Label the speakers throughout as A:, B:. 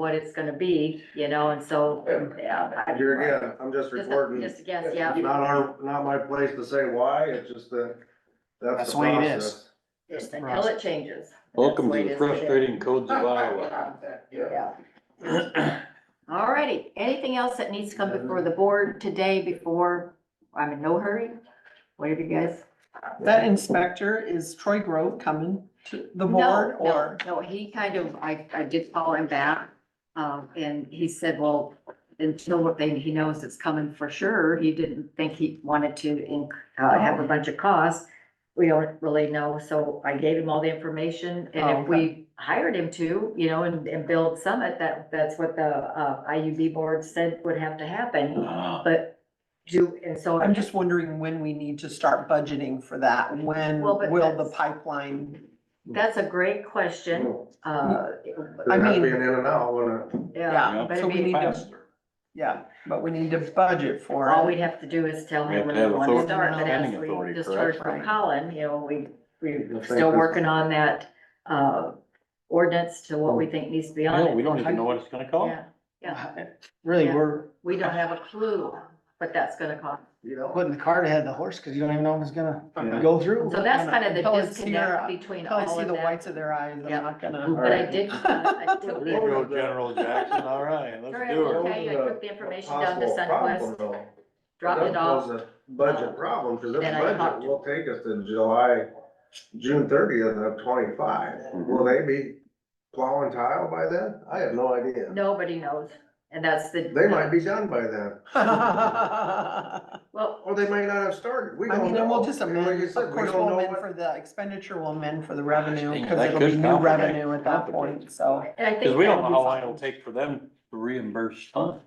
A: what it's gonna be, you know, and so, yeah. I-
B: Here again, I'm just
A: Just a-
B: reporting.
A: Just a guess,
B: It's
A: yeah,
B: Not our, not my place to say why, it's just that, that's
C: That's
B: the
C: the way it
B: process.
C: is.
A: just until it changes.
D: Welcome
A: That's
D: to
A: way it
D: the
A: is today.
D: frustrating codes of Iowa.
A: Yeah. All righty, anything else that needs to come before the board today before, I'm in no hurry, whatever you guys.
E: That inspector is Troy Grove coming to the board
A: No, no,
E: or?
A: No, he kind of, I, I did call him back, um, and he said, well, until what they, he knows it's coming for sure, he didn't think he wanted to inc- uh, have
E: Oh.
A: a bunch of costs. We don't really know, so I gave him all the information,
E: Oh,
A: and if we hired him to, you know, and, and build Summit, that, that's what the, uh, IUB board said would have to happen,
C: Ah.
A: but do, and so.
E: I'm just wondering when we need to start budgeting for that. When
A: Well, but
E: will the
A: that's-
E: pipeline?
A: That's a great question, uh,
E: I
B: It'd have to
E: mean-
B: be an in and out, wouldn't it?
A: yeah,
E: Yeah,
A: but I
E: so we
A: mean-
E: need to, yeah, but we need to budget for
A: All
E: it.
A: we'd have to do is tell
D: We
A: him
D: have
A: when
D: to
A: we
D: have
A: want to
D: authority,
A: start, but as
D: planning
A: we
D: authority,
A: just heard from
D: correct?
A: Colin, you know, we, we're
B: think
A: still
B: this-
A: working on that, uh, ordinance to what we think needs to be on
D: Yeah,
A: it.
D: we don't even Mm. know what it's gonna cost.
A: Yeah, yeah,
C: Uh, Really,
A: Yeah.
C: we're
A: we don't have a clue what that's gonna cost.
B: You know?
C: putting the cart ahead of the horse, cause you don't even know if it's gonna
B: Yeah.
C: go through.
A: So that's kind of
E: Until
A: the
E: it's here,
A: disconnect between
E: Until I
A: all
E: see
A: of
E: the
A: that.
E: whites of their eyes, I'm
A: Yeah.
E: not gonna.
A: But I did, uh, I took,
D: There
A: the-
D: you go, General Jackson, all right, let's
A: Sorry,
D: do
A: I'm
D: it.
A: okay. I took the information down to
B: Possible problem,
A: Sunquest,
B: though.
A: dropped it
B: That
A: off,
B: was a Budget problem, cause this
A: Then I talked
B: budget
A: to-
B: will take us to July, June thirtieth of twenty-five.
D: Mhm.
B: Will they be plowing tile by then? I have no idea.
A: nobody knows, and that's the.
B: They might be done by then,
E: I
A: Well,
B: or they might not have started. We don't
E: mean, and we'll just
B: know. And like
E: amend,
B: you
E: of
B: said, we
E: course,
B: don't know
E: we'll amend
B: what-
E: for the expenditure, we'll amend for the revenue, cause
D: That
E: it'll be
D: could
E: new
D: complicate-
E: revenue at that point, so.
A: and I think.
D: Cause we don't know
A: that-
D: how long it'll take for them to reimburse funds.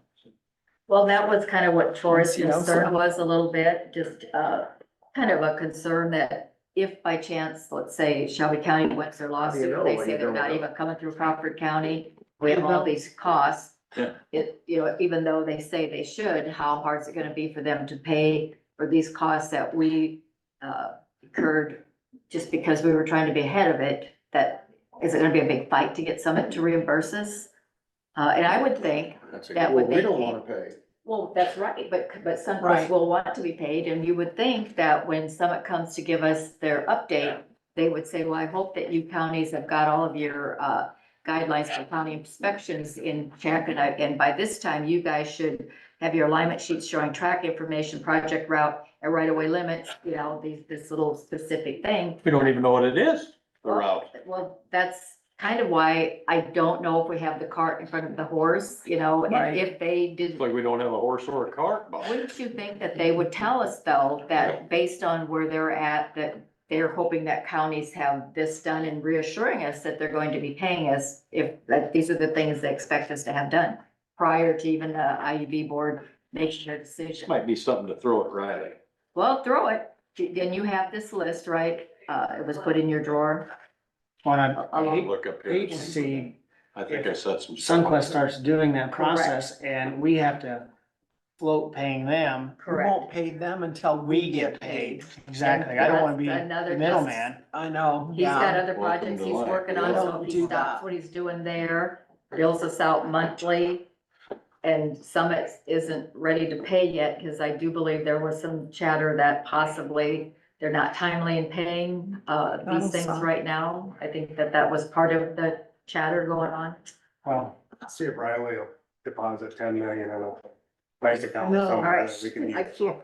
A: Well, that was kind of what Troy's
E: Yes, you know, so-
A: concern was a little bit, just, uh, kind of a concern that if by chance, let's say Shelby County wins their lawsuit,
B: know
A: they
B: when
A: say
B: you
A: they're
B: don't
A: not
B: know?
A: even coming through Crawford County, we have all these costs.
D: Yeah.
A: It, you know, even though they say they should, how hard is it gonna be for them to pay for these costs that we, uh, incurred just because we were trying to be ahead of it, that, is it gonna be a big fight to get Summit to reimburse us? Uh, and I would think that
B: Well,
A: would
B: we
A: make
B: don't
A: it-
B: wanna pay.
A: well, that's right, but, but Sunquest
E: Right.
A: will want to be paid, and you would think that when Summit comes to give us their update, they would say, well, I hope that you counties have got all of your, uh, guidelines for county inspections in check, and I, and by this time, you guys should have your alignment sheets showing track information, project route, and right-of-way limits, you know, these, this little specific thing.
D: We don't even know what it is, the route.
A: Well, that's kind of why I don't know if we have the cart in front of the horse, you know,
E: Right.
A: and if they did
D: It's like we don't have a horse or a cart, but
A: wouldn't you think that they would tell us though, that based on where they're at, that they're hoping that counties have this done and reassuring us that they're going to be paying us if, that these are the things they expect us to have done prior to even the IUB board making their
D: this
A: decision.
D: might be something to throw at Riley.
A: Well, throw it. Then you have this list, right? Uh, it was put in your drawer.
C: On
A: Along-
C: a
D: Look up here.
C: agency,
D: I think I said some.
C: Sunquest starts doing that process and we have to float paying them.
E: We won't pay them until we get paid.
C: Exactly, I don't wanna be
A: That's another
C: the middleman.
E: I know,
A: He's got
E: yeah.
A: other
D: Welcome
A: projects
D: to
A: he's
D: life.
A: working on, so if he
E: Don't do
A: stops
E: that.
A: what he's doing there, bills us out monthly. And Summit isn't ready to pay yet, because I do believe there was some chatter that possibly they're not timely in paying, uh, these
E: That'll
A: things
E: suck.
A: right now. I think that that was part of the chatter going on.
C: Well,
F: See if Riley will deposit ten million in a bank account
E: No.
F: somewhere that we can
A: Alright, I
F: use.
A: can't.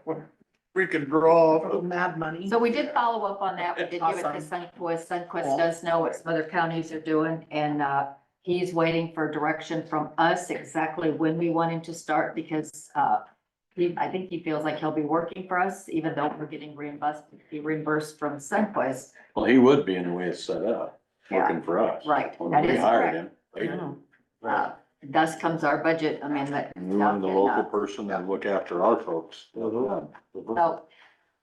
D: We can draw.
E: Little Mad money.
A: So we did follow up on that. We did give it to
E: Awesome.
A: Sunquest. Sunquest does know what some other counties are doing and, uh, he's waiting for direction from us exactly when we want him to start because, uh, he, I think he feels like he'll be working for us, even though we're getting reimbursed, be reimbursed from Sunquest.
D: Well, he would be in the way it's set up,
A: Yeah,
D: working for us.
A: right.
D: When
A: That
D: we
A: is
D: hired
A: correct.
D: him, they-
A: Uh, Thus comes our budget amendment.
D: we wanted the
A: uh,
D: local person to look after our folks.
A: So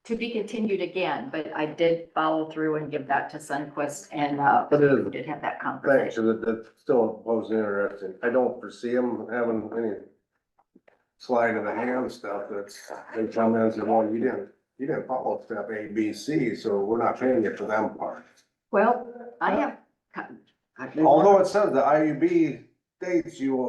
A: to be continued again, but I did follow through and give that to Sunquest and, uh,
B: But it is
A: we did have that conversation.
B: Thanks, that, that still was interesting. I don't foresee them having any slide of the hand stuff that's, they come in and say, well, you didn't, you didn't follow step A, B, C, so we're not paying you for them part.
A: 哎 Well, I have. 啊
B: Although it says the IUB dates you